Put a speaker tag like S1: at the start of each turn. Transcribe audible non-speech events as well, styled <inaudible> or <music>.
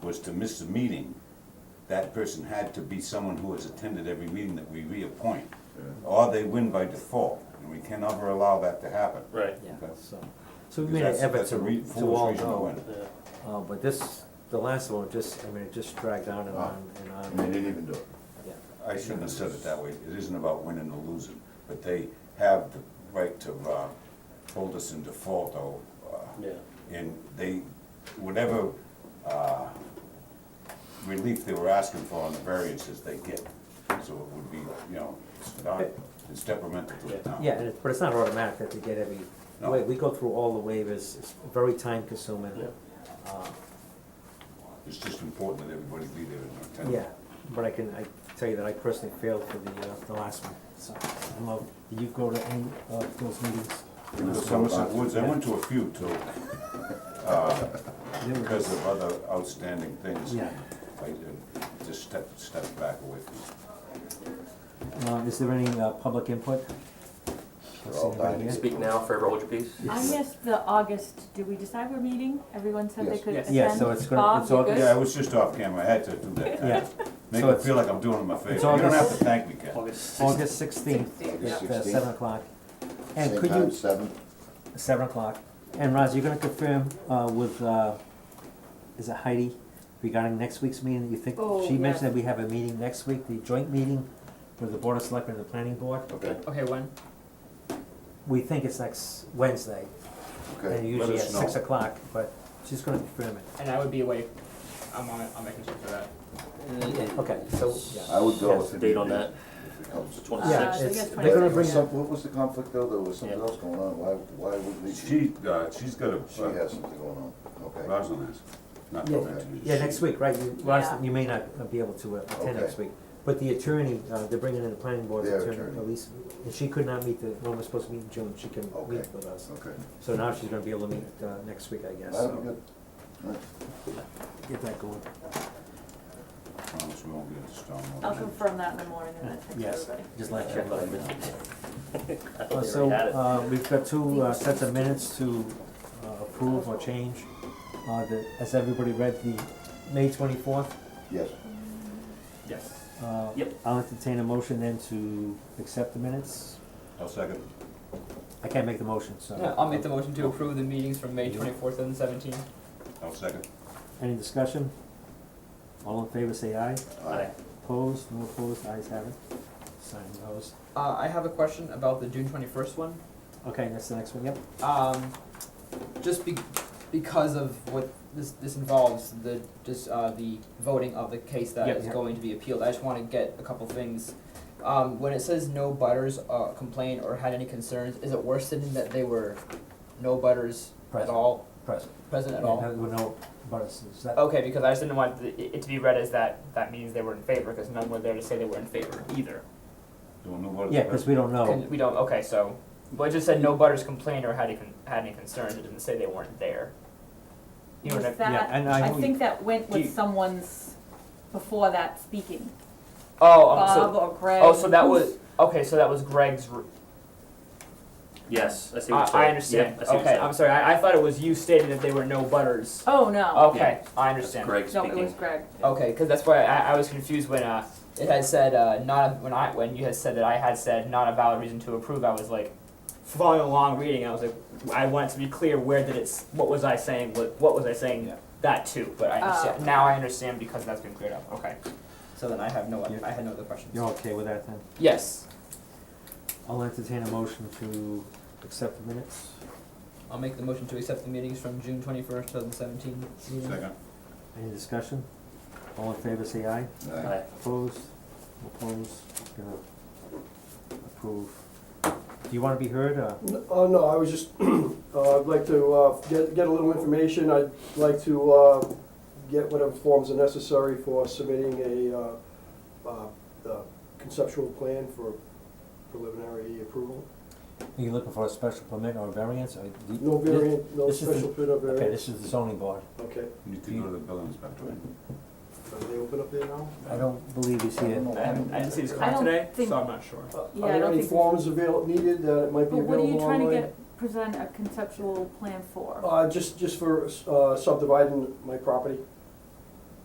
S1: was to miss a meeting, that person had to be someone who has attended every meeting that we reappoint. Or they win by default, and we can never allow that to happen.
S2: Right,
S3: Yeah,
S1: Okay.
S3: so, so
S1: Because
S3: we made an
S1: that's-
S3: effort
S1: that's a
S3: to,
S1: re-
S3: to
S1: foolish
S3: all
S1: reason to
S3: know,
S1: win.
S2: yeah.
S3: uh, but this, the last one, just, I mean, it just dragged on and
S1: Ah.
S4: Oh.
S3: on and
S4: And they
S3: on,
S4: didn't even do it.
S3: yeah.
S1: I shouldn't have said it that way, it isn't about winning or losing, but they have the right to, uh, hold us in default, or, uh,
S2: Yeah,
S1: and they, whatever, uh, relief they were asking for on the variances, they get. So it would be, you know, it's not, it's detrimental to the town.
S3: Yeah, and it, but it's not automatic that they get every,
S1: No.
S3: wa- we go through all the waivers, it's very time consuming.
S2: yeah,
S3: Uh,
S1: It's just important that everybody be there in attendance.
S3: Yeah, but I can, I tell you that I personally failed for the, uh, the last one, so, I love, that you go to any of those meetings?
S1: It was Somerset Woods, I went to a few too,
S3: They were
S1: because
S3: just-
S1: of other outstanding things.
S3: Yeah.
S1: I uh, just stepped, stepped back away from it.
S3: Uh, is there any, uh, public input?
S4: They're all dying.
S3: Yeah.
S5: Speak now, forever hold your peace.
S6: I missed the August, did we decide we're meeting? Everyone said they
S4: Yes.
S6: could
S3: Yes.
S6: attend?
S3: Yeah, so it's gonna-
S6: Bob,
S3: it's
S6: you
S3: August.
S6: good?
S1: Yeah, I was just off camera, I had to do that.
S3: Yeah,
S1: Make
S3: So
S1: it
S3: it's-
S1: feel like I'm doing them a favor. You
S3: it's
S1: don't have
S3: August-
S1: to thank me, Ken.
S5: August sixth.
S3: August sixteenth,
S4: August
S3: at uh,
S4: 16th.
S3: seven o'clock. And
S4: Same
S3: could
S4: time,
S3: you,
S4: seven,
S3: seven o'clock, and Roz, you're gonna confirm, uh, with, uh, is it Heidi regarding next week's meeting, you think,
S6: Oh,
S3: she mentioned
S6: yeah.
S3: that we have a meeting next week, the joint meeting with the Board of Selectmen and the Planning Board,
S4: okay,
S7: Okay, when?
S3: we think it's next Wednesday, and
S4: okay.
S3: usually
S1: us
S3: at six
S1: know.
S3: o'clock, but she's gonna confirm it.
S7: And I would be awake. I'm on it. I'm making sure for that.
S5: Uh,
S3: Okay, so, yeah.
S4: I would go
S5: What's
S4: if
S5: the
S4: it.
S5: date on that?
S4: if it comes.
S5: The
S3: Yeah,
S6: Uh,
S5: twenty-sixth.
S6: so
S3: it's-
S6: yes,
S3: they're
S4: There
S3: gonna
S6: 26.
S3: bring
S4: was
S3: it-
S4: some- What was the conflict though? There was something
S5: Yeah.
S4: else going on. Why, why would we?
S1: She, uh, she's got
S4: She
S1: a, uh,
S4: has something going on, okay.
S1: Rosalind has, not
S3: Yeah.
S1: to mention it.
S3: Yeah, next week, right, you,
S6: Yeah.
S3: Roz, you may not be able to uh, attend
S4: Okay.
S3: next week, but the attorney, uh, they're bringing in the Planning Board's
S4: Their
S3: attorney,
S4: attorney.
S3: Elise, and she could not meet the, when we're supposed to meet in June, she can
S4: Okay.
S3: meet with us.
S4: Okay,
S3: So now she's gonna be able to meet, uh, next week, I guess,
S4: that'll be
S3: so,
S4: good. All right.
S3: get that going.
S1: Promise we won't get into storm.
S6: I'll confirm that in the morning and then text
S3: Yes,
S6: everybody.
S3: just like
S5: Check
S3: that.
S5: by midnight. I
S3: Uh,
S5: thought they
S3: So,
S5: already had it.
S3: uh, we've got two uh, sets of minutes to uh, approve or change. Uh, the, has everybody read the May twenty-fourth? uh,
S4: Yes,
S7: Yes.
S5: Yep.
S3: I'll entertain a motion then to accept the minutes.
S1: I'll second.
S3: I can't make the motion,
S7: Yeah,
S3: so.
S7: I'll make the motion to approve the meetings from May twenty-fourth and seventeenth.
S1: I'll second.
S3: Any discussion? All in favor, say aye.
S4: aye,
S3: Opposed, no opposed, ayes have it. Sign those.
S7: Uh, I have a question about the June twenty-first one.
S3: Okay, that's the next one, yep.
S7: Um, just be- because of what this this involves, the just uh, the voting of the case that is
S3: Yep. Yeah.
S7: going to be appealed. I just want to get a couple things. Um, when it says no butters uh, complained or had any concerns, is it worse than that they were no butters
S3: Present.
S7: at all
S3: Present.
S7: present at
S3: Yeah, Oh.
S7: all?
S3: no- with no butters, is that?
S7: Okay, because I just didn't want the- it to be read as that that means they were in favor, because none were there to say they were in favor either.
S1: Don't know what it's.
S3: Yeah, cause we
S5: Oh.
S3: don't know.
S7: Can- We don't, okay, so, but it just said no butters complained or had any, con- had any concerns, it didn't say they weren't there. You know
S6: Was
S7: what I,
S3: Yeah,
S6: that,
S3: and
S6: I
S3: I,
S6: think that went
S7: Do you-
S6: with someone's, before that speaking,
S7: oh, um,
S6: Bob
S7: so,
S6: or Greg.
S7: oh, so that was,
S6: who's-
S7: okay, so that was Greg's, r-
S5: Yes, I see
S7: I,
S5: what you're saying.
S7: I understand,
S5: Yeah, I see what you're
S7: okay,
S5: saying.
S7: I'm sorry, I, I thought it was you stating that they were no butters.
S6: Oh, no.
S7: Okay, I
S5: That's
S7: understand.
S5: Greg
S6: No, it was
S5: speaking.
S6: Greg.
S7: Okay, because that's why I, I was confused when uh, it had said uh, not when I when you had said that I had said not a valid reason to approve. I was like following along reading. I was like I wanted to be clear where did it's what was I saying what what was I saying
S3: Yeah.
S7: that too. But I
S6: Oh.
S7: understand, now I understand because that's been cleared up. Okay, so then I have no
S3: Yeah.
S7: I had no other questions.
S3: you're okay with that then?
S7: Yes,
S3: I'll entertain a motion to accept the minutes.
S7: I'll make the motion to accept the meetings from June twenty first, two thousand seventeen.
S1: Second.
S3: Any discussion? All in favor, say aye.
S4: aye,
S5: Aye.
S3: Opposed, opposed, gonna approve. Do you wanna be heard, or?
S8: N- Uh, no, I was just, <clears throat> uh, I'd like to, uh, get, get a little information, I'd like to, uh, get whatever forms are necessary for submitting a, uh, uh, uh, conceptual plan for preliminary approval.
S3: Are you looking for a special permit or a variance, or? do you-
S8: No variant, no
S3: This is the-
S8: special permit or
S3: Okay,
S8: variance,
S3: this is the zoning board.
S8: okay,
S1: You can go to the building inspector. right?
S8: are they open up there now?
S3: I don't believe he's
S4: I don't
S3: here.
S4: know
S7: I
S4: why
S7: haven't I didn't see this
S6: I
S7: comment
S6: don't
S7: today,
S6: think-
S7: so I'm not sure.
S6: Yeah,
S8: Uh,
S6: I
S8: Are there
S6: don't
S8: any
S6: think-
S8: forms avail, needed that might be
S6: But what are you
S8: available online?
S6: trying to get, present a conceptual plan for?
S8: Uh, just, just for, uh, subdividing my property,